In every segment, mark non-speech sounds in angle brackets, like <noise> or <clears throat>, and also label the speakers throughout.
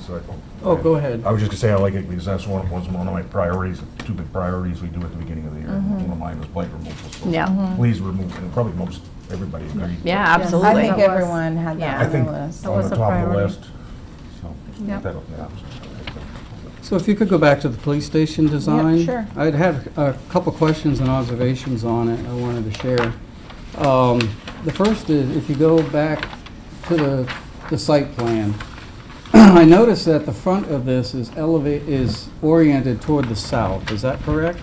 Speaker 1: So I-
Speaker 2: Oh, go ahead.
Speaker 1: I was just gonna say, I like it because that's one, was one of my priorities, two big priorities we do at the beginning of the year. One of mine was blight removal, so
Speaker 3: Yeah,
Speaker 1: please remove, and probably most, everybody agreed.
Speaker 3: Mm-hmm. yeah,
Speaker 4: Yes,
Speaker 3: absolutely.
Speaker 4: I think
Speaker 5: That was-
Speaker 4: everyone had
Speaker 3: yeah.
Speaker 4: that
Speaker 1: I
Speaker 4: on
Speaker 1: think
Speaker 4: the
Speaker 1: on
Speaker 4: list.
Speaker 5: was
Speaker 1: the
Speaker 5: a
Speaker 1: top of the
Speaker 5: priority.
Speaker 1: list, so.
Speaker 3: Yep.
Speaker 1: that'll- yeah,
Speaker 2: So if you could go back to the police station design?
Speaker 4: sure.
Speaker 2: I'd had a couple questions and observations on it I wanted to share. Um, The first is, if you go back to the, the site plan, <clears throat> I noticed that the front of this is elevate, is oriented toward the south, is that correct?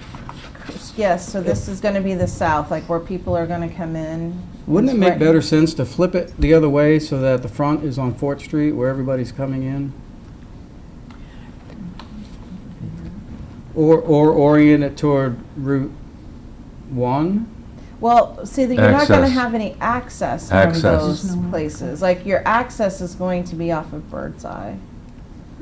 Speaker 4: Yes, so this is going to be the south, like where people are going to come in.
Speaker 2: Wouldn't it
Speaker 4: It's
Speaker 2: make
Speaker 4: right-
Speaker 2: better sense to flip it the other way so that the front is on Fort Street where everybody's coming in? Or, or orient it toward Route 1?
Speaker 4: Well, see, that you're not going to
Speaker 6: Access.
Speaker 4: have any access from
Speaker 6: Access.
Speaker 4: those places. Like your access is going to be off of Birdseye.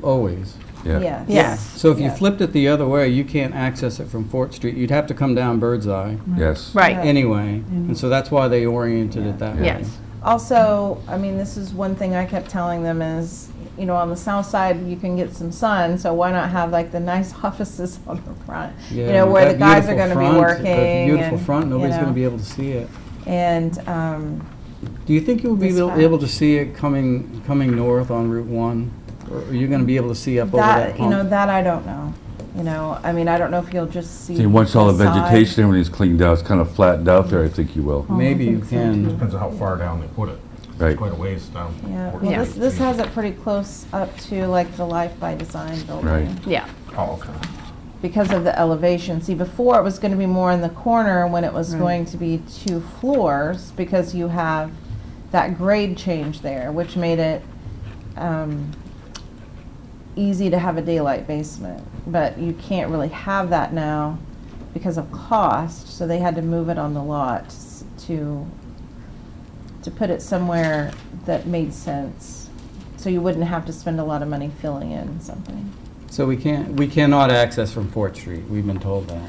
Speaker 2: Always.
Speaker 6: Yeah.
Speaker 4: Yes.
Speaker 3: Yes.
Speaker 2: So if you
Speaker 4: Yes.
Speaker 2: flipped it the other way, you can't access it from Fort Street. You'd have to come down Birdseye
Speaker 6: Yes.
Speaker 3: Right,
Speaker 2: anyway. And
Speaker 4: Mm-hmm.
Speaker 2: so that's why they oriented it that way.
Speaker 3: yes.
Speaker 4: Also, I mean, this is one thing I kept telling them is, you know, on the south side, you can get some sun, so why not have like the nice <laughs> offices on the front? You
Speaker 2: Yeah,
Speaker 4: know, where
Speaker 2: that
Speaker 4: the guys are gonna
Speaker 2: beautiful
Speaker 4: be
Speaker 2: front,
Speaker 4: working
Speaker 2: that
Speaker 4: and,
Speaker 2: Beautiful front,
Speaker 4: you
Speaker 2: nobody's going
Speaker 4: know.
Speaker 2: to be able to see it.
Speaker 4: And, um,
Speaker 2: Do you think you'll be
Speaker 4: This
Speaker 2: able
Speaker 4: path.
Speaker 2: able to see it coming, coming north on Route 1? Or are you going to be able to see up over that
Speaker 4: that, you know,
Speaker 2: hump?
Speaker 4: that I don't know. You know, I mean, I don't know if you'll just see.
Speaker 6: See, once all the
Speaker 4: side.
Speaker 6: vegetation, everything's cleaned out, it's kind of flattened out there, I think you will.
Speaker 2: Maybe you
Speaker 5: think so,
Speaker 2: can.
Speaker 1: Depends on how far down they put it.
Speaker 6: Right.
Speaker 1: Quite a ways down.
Speaker 4: Yeah,
Speaker 1: Fort
Speaker 4: well,
Speaker 3: Yeah.
Speaker 4: this,
Speaker 1: Street.
Speaker 4: this has it pretty close up to like the Life by Design building.
Speaker 6: Right.
Speaker 3: Yeah,
Speaker 1: Oh, okay.
Speaker 4: because of the elevation. See, before it was going to be more in the corner when it was going to be two floors because you have that grade change there, which made it um, easy to have a daylight basement. But you can't really have that now because of cost, so they had to move it on the lot s- to, to put it somewhere that made sense. So you wouldn't have to spend a lot of money filling in something.
Speaker 2: So we can't, we cannot access from Fort Street, we've been told that.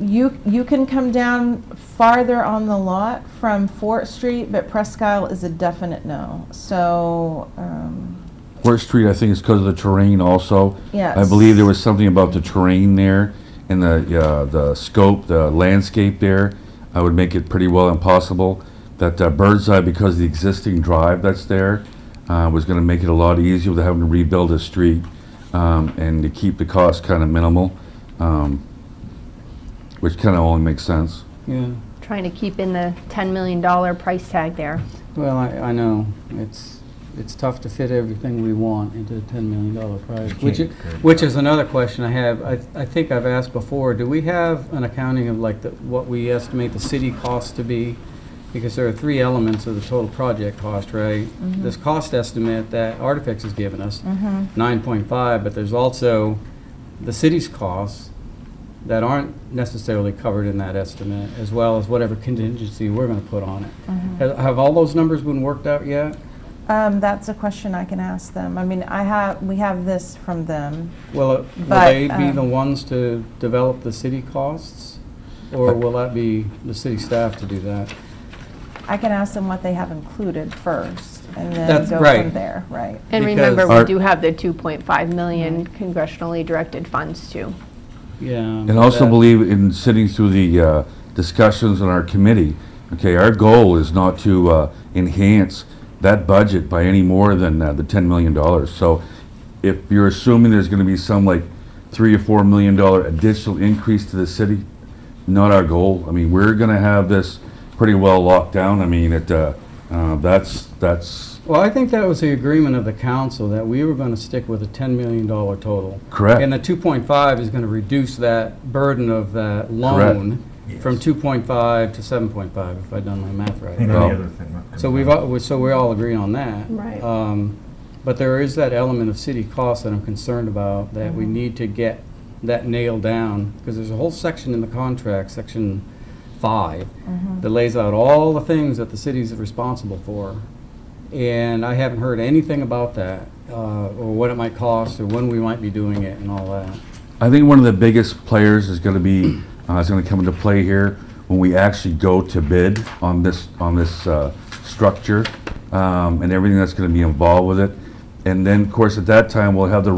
Speaker 4: You, you can come down farther on the lot from Fort Street, but Presque Isle is a definite no. So, um,
Speaker 6: Fort Street, I think it's because of the terrain also.
Speaker 4: yes.
Speaker 6: I believe there was something about the terrain there and the, uh, the scope, the landscape there. I would make it pretty well impossible that uh, bird's eye, because the existing drive that's there, uh, was going to make it a lot easier without having to rebuild a street um, and to keep the cost kind of minimal, um, which kind of only makes sense.
Speaker 2: Yeah,
Speaker 3: trying to keep in the $10 million price tag there.
Speaker 2: well, I, I know, it's, it's tough to fit everything we want into a $10 million project. Which, i- which is another question I have, I, I think I've asked before, do we have an accounting of like the, what we estimate the city cost to be? Because there are three elements of the total project cost, right? This cost estimate that Artifacts has given us,
Speaker 4: Mhm.
Speaker 2: 9.5, but there's also the city's costs that aren't necessarily covered in that estimate, as well as whatever contingency we're going to put on
Speaker 4: Mm-hmm.
Speaker 2: it. Have- Have all those numbers been worked out yet?
Speaker 4: Um, that's a question I can ask them. I mean, I have, we have this from them.
Speaker 2: Will it- will
Speaker 4: But,
Speaker 2: they be the
Speaker 4: um,
Speaker 2: ones to develop the city costs? Or will that be the city staff to do that?
Speaker 4: I can ask them what they have included first and then
Speaker 2: That's
Speaker 4: go
Speaker 2: right.
Speaker 4: from there, right?
Speaker 3: And
Speaker 2: Because-
Speaker 3: remember,
Speaker 6: Our-
Speaker 3: we do have the 2.5 million congressionally directed funds too.
Speaker 2: Yeah.
Speaker 6: And also believe in sitting through the uh, discussions on our committee, okay, our goal is not to uh, enhance that budget by any more than uh, the $10 million. So if you're assuming there's going to be some like 3 or $4 million dollar additional increase to the city, not our goal. I mean, we're going to have this pretty well locked down. I mean, it, uh, uh, that's, that's
Speaker 2: Well, I think that was the agreement of the council, that we were going to stick with a $10 million total.
Speaker 6: Correct.
Speaker 2: And the 2.5 is going to reduce that burden of that loan from 2.5 to 7.5, if I've done my math
Speaker 1: And
Speaker 2: right.
Speaker 6: Well-
Speaker 1: any other thing. that-
Speaker 2: So we've, all- so we're all agreeing on that.
Speaker 3: Right.
Speaker 2: Um, But there is that element of city cost that I'm concerned about, that we need to get that nailed down, because there's a whole section in the contract, Section 5, that lays out all the things that the city's responsible for. And I haven't heard anything about that, uh, or what it might cost, or when we might be doing it and all that.
Speaker 6: I think one of the biggest players is going to be, <clears throat> uh, is going to come into play here when we actually go to bid on this, on this uh, structure um, and everything that's going to be involved with it. And then, of course, at that time, we'll have the